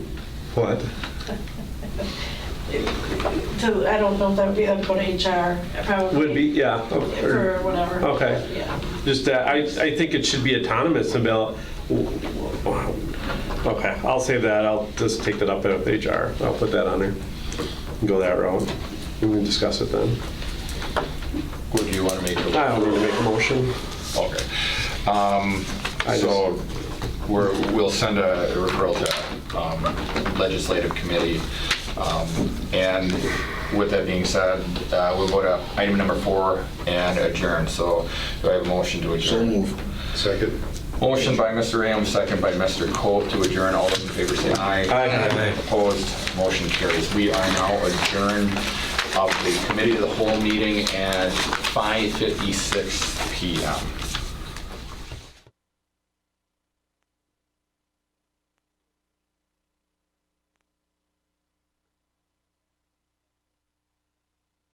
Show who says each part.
Speaker 1: What?
Speaker 2: To, I don't know if that would be, that'd go to HR, probably.
Speaker 1: Would be, yeah. okay,
Speaker 2: For
Speaker 1: or-
Speaker 2: whatever.
Speaker 1: Okay.
Speaker 2: Yeah.
Speaker 1: Just, uh, I, I think it should be autonomous about, okay, I'll save that, I'll just take that up with HR, I'll put that on there, and go that route, and we can discuss it then.
Speaker 3: Would you want to make
Speaker 1: I
Speaker 3: a,
Speaker 1: don't need to make a motion.
Speaker 3: okay. Um,
Speaker 1: I
Speaker 3: So we're, we'll send a referral to um, legislative committee. Um, And with that being said, uh, we'll go to item number four and adjourn. So do I have a motion to
Speaker 4: So
Speaker 3: adjourn?
Speaker 4: moved. Second.
Speaker 3: Motion by Mr. Am, second by Mr. Coe to adjourn. All those in favor say aye.
Speaker 1: Aye.
Speaker 3: Opposed, motion carries. We are now adjourned of the committee of the whole meeting at 5:56 PM.